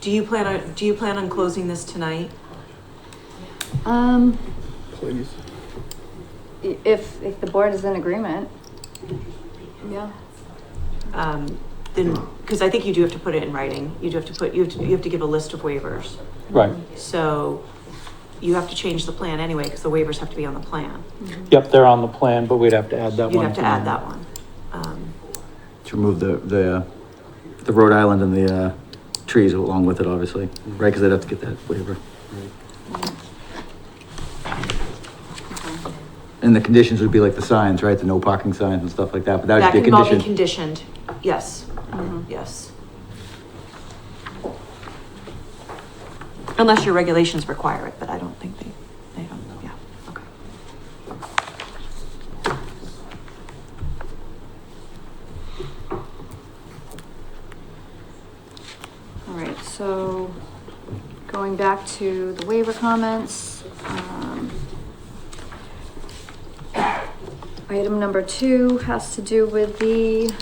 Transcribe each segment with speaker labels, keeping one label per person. Speaker 1: Do you plan on, do you plan on closing this tonight?
Speaker 2: Um,
Speaker 3: Please.
Speaker 2: i- if, if the board is in agreement. Yeah.
Speaker 1: Um, then, because I think you do have to put it in writing. You do have to put, you have to, you have to give a list of waivers.
Speaker 4: Right,
Speaker 1: So you have to change the plan anyway, because the waivers have to be on the plan.
Speaker 2: Uh-huh.
Speaker 4: yep, they're on the plan, but we'd have to add that
Speaker 1: You'd
Speaker 4: one.
Speaker 1: have to add that one. Um,
Speaker 5: To remove the, the, uh, the Rhode Island and the, uh, trees along with it, obviously, right? Cause they'd have to get that waiver. And the conditions would be like the signs, right? The no parking signs and stuff like that, but that
Speaker 1: That
Speaker 5: would be a
Speaker 1: can all be
Speaker 5: condition.
Speaker 1: conditioned, yes,
Speaker 2: Mhm.
Speaker 1: yes. Unless your regulations require it, but I don't think they, they don't, yeah, okay.
Speaker 2: All right, so going back to the waiver comments, um, item number two has to do with the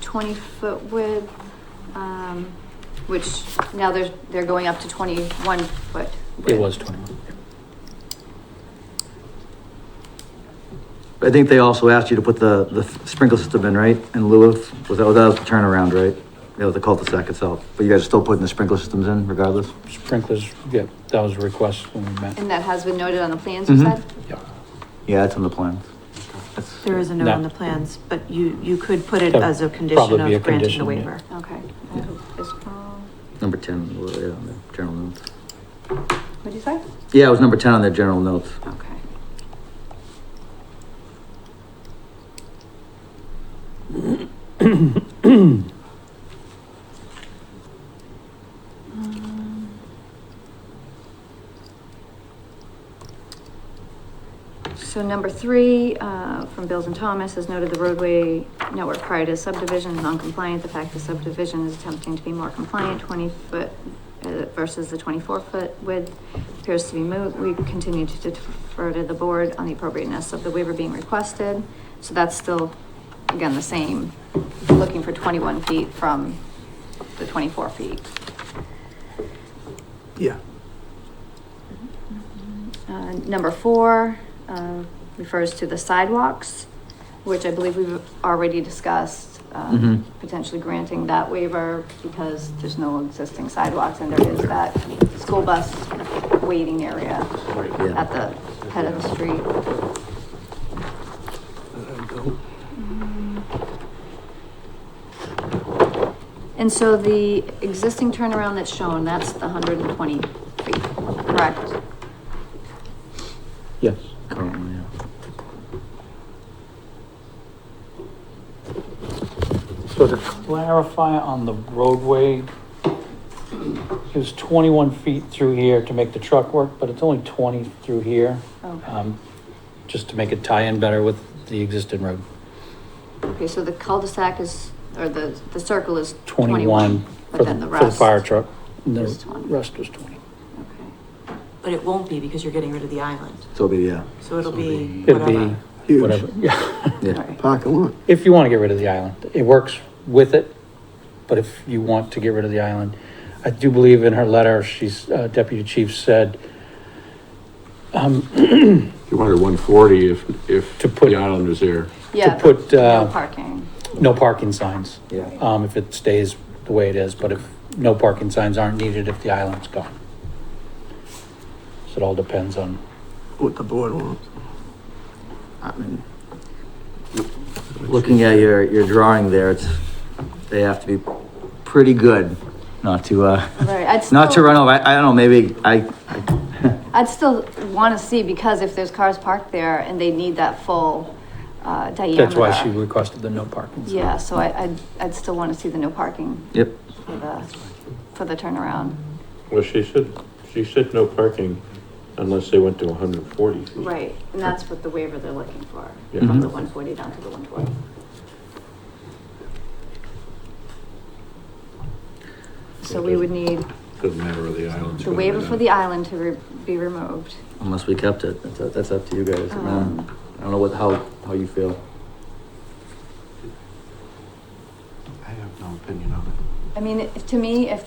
Speaker 2: twenty-foot width, um, which now they're, they're going up to twenty-one foot.
Speaker 4: It
Speaker 2: width.
Speaker 4: was twenty-one.
Speaker 5: I think they also asked you to put the, the sprinkler system in, right? In lieu of, was that, that was the turnaround, right? That was the cul-de-sac itself, but you guys are still putting the sprinkler systems in regardless?
Speaker 4: Sprinklers, yeah, that was a request when we met.
Speaker 2: And that has been noted on the plans, you
Speaker 5: Mhm.
Speaker 2: said?
Speaker 4: Yeah.
Speaker 5: Yeah, that's on the plans. That's-
Speaker 1: There is a note on
Speaker 4: No.
Speaker 1: the plans, but you, you could put it
Speaker 4: That
Speaker 1: as a
Speaker 4: would
Speaker 1: condition
Speaker 4: probably be a
Speaker 1: of granting the
Speaker 4: condition, yeah.
Speaker 1: waiver.
Speaker 2: Okay.
Speaker 5: Yeah.
Speaker 2: Is- um,
Speaker 5: Number ten, well, yeah, on the general notes.
Speaker 2: What'd you say?
Speaker 5: Yeah, it was number ten on their general notes.
Speaker 2: Okay. Um, So number three, uh, from Bills and Thomas, has noted the roadway network prior to subdivision is non-compliant. The fact the subdivision is attempting to be more compliant, twenty foot uh, versus the twenty-four foot width appears to be moot. We continue to defer to the board on the appropriateness of the waiver being requested. So that's still, again, the same, looking for twenty-one feet from the twenty-four feet.
Speaker 3: Yeah.
Speaker 2: Uh, Number four uh, refers to the sidewalks, which I believe we've already discussed, uh,
Speaker 5: Mhm.
Speaker 4: Mm-hmm.
Speaker 2: potentially granting that waiver because there's no existing sidewalks and there is that school bus waiting area
Speaker 5: yeah.
Speaker 2: at the head of the street. And so the existing turnaround that's shown, that's the hundred and twenty feet, correct?
Speaker 4: Yes.
Speaker 5: Currently, yeah.
Speaker 4: So to clarify on the roadway, it was twenty-one feet through here to make the truck work, but it's only twenty through here,
Speaker 2: Okay,
Speaker 4: um, just to make it tie in better with the existing road.
Speaker 2: Okay. so the cul-de-sac is, or the, the circle is
Speaker 4: Twenty-one
Speaker 2: twenty-one,
Speaker 4: for
Speaker 2: but then
Speaker 4: the,
Speaker 2: the
Speaker 4: for the
Speaker 2: rest.
Speaker 4: fire truck. And
Speaker 2: is
Speaker 4: The
Speaker 2: 20.
Speaker 4: rest was twenty.
Speaker 2: Okay.
Speaker 1: But it won't be because you're getting rid of the island,
Speaker 5: So be yeah,
Speaker 1: so it'll be
Speaker 4: It'd be
Speaker 1: whatever.
Speaker 3: Huge.
Speaker 4: whatever, yeah.
Speaker 5: yeah.
Speaker 2: Alright.
Speaker 3: Parking lot.
Speaker 4: If you want to get rid of the island, it works with it, but if you want to get rid of the island, I do believe in her letter, she's, uh, deputy chief said, um,
Speaker 6: You wanted one forty if, if
Speaker 4: To put-
Speaker 6: the island was there.
Speaker 2: Yeah,
Speaker 4: to put,
Speaker 2: but no
Speaker 4: uh,
Speaker 2: parking,
Speaker 4: no parking signs,
Speaker 5: Yeah.
Speaker 4: um, if it stays the way it is, but if no parking signs aren't needed if the island's gone. So it all depends on,
Speaker 3: What the board wants. I mean,
Speaker 5: Looking at your, your drawing there, it's, they have to be pretty good not to, uh,
Speaker 2: right, I'd
Speaker 5: not to
Speaker 2: still-
Speaker 5: run over. I, I don't know, maybe I,
Speaker 2: I'd still wanna see, because if there's cars parked there and they need that full, uh, diameter.
Speaker 4: that's why she requested the no parking. sign.
Speaker 2: Yeah, so I, I'd, I'd still wanna see the no parking
Speaker 5: yep.
Speaker 2: for the, for the turnaround.
Speaker 6: Well, she said, she said no parking unless they went to hundred and forty feet.
Speaker 2: Right, and that's what the waiver they're looking for,
Speaker 6: Yeah.
Speaker 2: from the
Speaker 4: Mm-hmm.
Speaker 5: Mhm.
Speaker 2: one forty down to the one twenty. So we would need
Speaker 6: Doesn't matter where the island's
Speaker 2: the
Speaker 6: going.
Speaker 2: waiver for the island to re- be removed.
Speaker 5: Unless we kept it, that's, up- that's up to you guys. I mean,
Speaker 2: Um,
Speaker 5: I don't know what, how, how you feel.
Speaker 3: I have no opinion on it.
Speaker 2: I mean, if- to me, if